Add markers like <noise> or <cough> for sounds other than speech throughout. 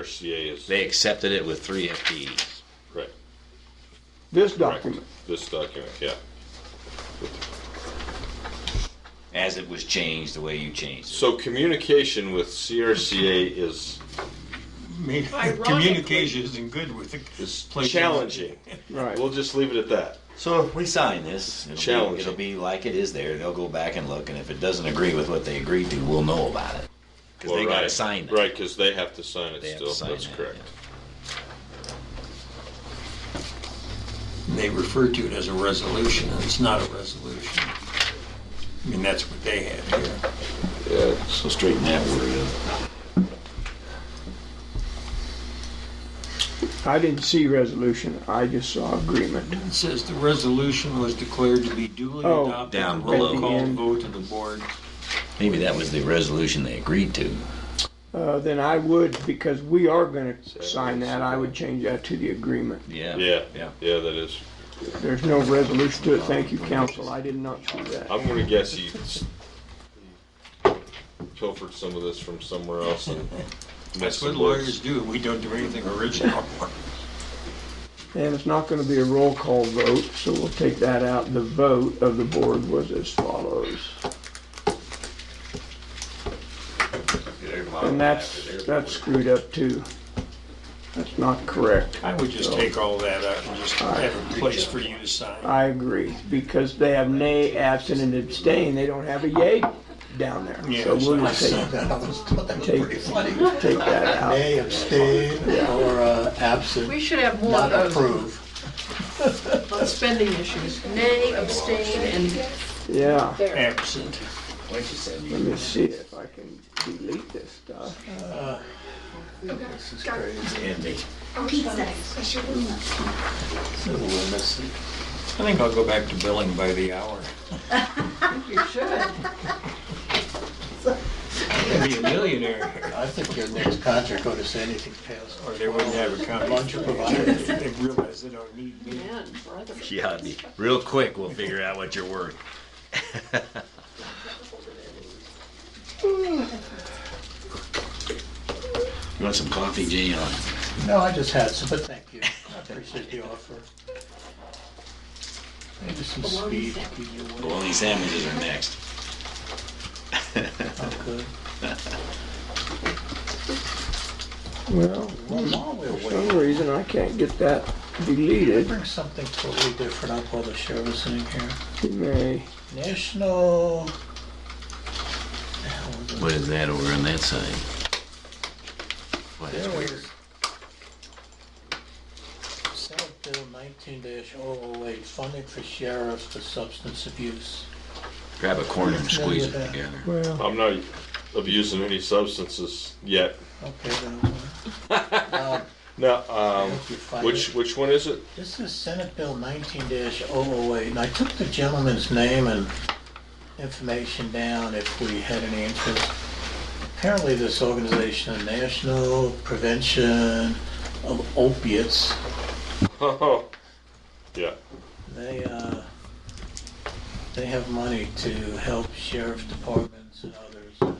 CRCA is, They accepted it with three FTEs. right, This correct, document. this document, yeah. As it was changed, the way you changed it. So communication with CRCA is, I mean, Ironically- communication isn't good with the is place- challenging. Right. We'll just leave it at that. So if we sign this, it'll be, Challenging. it'll be like it is there. They'll go back and look, and if it doesn't agree with what they agreed to, we'll know about it. Because Well, they got to right, sign it. Right, because they have to sign it They have still, to sign that's that, correct. They refer to it as a resolution, and it's not a resolution. I mean, that's what they have here. Yeah, So straighten that word up. I didn't see resolution. I just saw agreement. It says the resolution was declared to be duly Oh. adopted. Down The roll below. Call End. vote of the board. Maybe that was the resolution they agreed to. Uh, then I would, because we are gonna sign that, I would change that to the agreement. Yeah. yeah, Yeah. yeah, that is. There's no resolution to it. Thank you, council. I did not see that. I'm gonna guess he s- he pilfered some of this from somewhere else <laughs> and That's messed what with lawyers lawyers. do. We don't do anything original. And it's not gonna be a roll call vote, so we'll take that out. The vote of the board was as follows. And that's, that's screwed up too. That's not correct. I would just take all that out and just have a place for you to sign. I agree, because they have nay, absent, and abstain. They don't have a yay down there. Yeah, So we'll so- just take, That was, that was Take- pretty funny. take that out. May abstain or uh, absent, We should have more not of those approve. on spending issues. Nay, abstain, and Yeah, Absent. let me see if I can delete this stuff. This is crazy. Andy. I think I'll go back to billing by the hour. you should. I'd be a millionaire, I think your next contract ought to say anything past. or they wouldn't have a company. Lunch provided. They realize they don't need me. Man, brother. Yeah, it'd be- real quick, we'll figure out what you're worth. <laughs> You want some coffee, Jay? or- No, I just had some, but thank you. I appreciate the offer. Maybe some speed. could be your way. Bologna sandwiches are next. Oh, good. Well, Well, while we're for some waiting, reason, I can't get that deleted. bring something totally different up while the show is in here. We May, National. the hell was it? What is that over on that side? What is There it? was Senate Bill nineteen 008 funding for sheriffs for substance abuse. Grab a corner and squeeze it together. well, I'm not abusing any substances yet. Okay, then. um, No, I um, hope you find which, it. which one is it? <laughs> This is Senate Bill nineteen 008, and I took the gentleman's name and information down if we had any interest. Apparently, this organization, the National Prevention of Opiates, Oh, Yeah, They, uh, they have money to help sheriff departments and others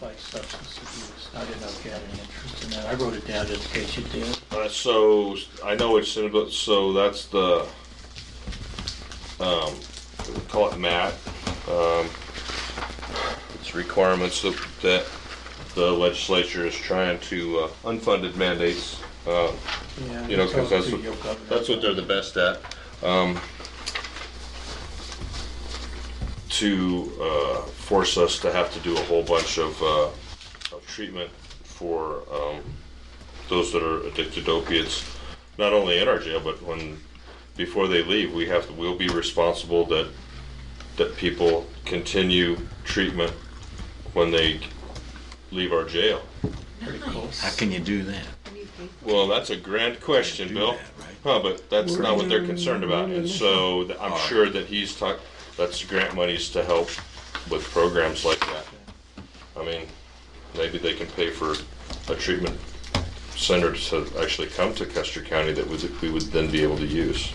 fight substance abuse. I didn't know if you had any interest in that. I wrote it down just in case you did. uh, so I know it's in, but, so that's the, um, call it MAT. Um, it's requirements that, that the legislature is trying to, uh, unfunded mandates, uh, Yeah, You know, 'cause talk that's to what- your governor. That's what they're the best at. Um, to uh, force us to have to do a whole bunch of, uh, of treatment for um, those that are addicted to opiates, not only in our jail, but when before they leave, we have to, we'll be responsible that that people continue treatment when they leave our jail. How can you do that? Well, that's a grand question, Do Bill. that, right? Huh, but that's not what they're concerned about, and so th- I'm sure that he's talk, that's grant monies to help with programs like that. I mean, maybe they can pay for a treatment center to actually come to Custer County that would, we would then be able to use.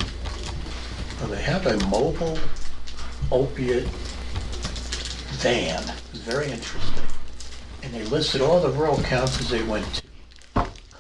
Well, They have a mobile opiate van. It's Very interesting. And they listed all the rural counties they went to.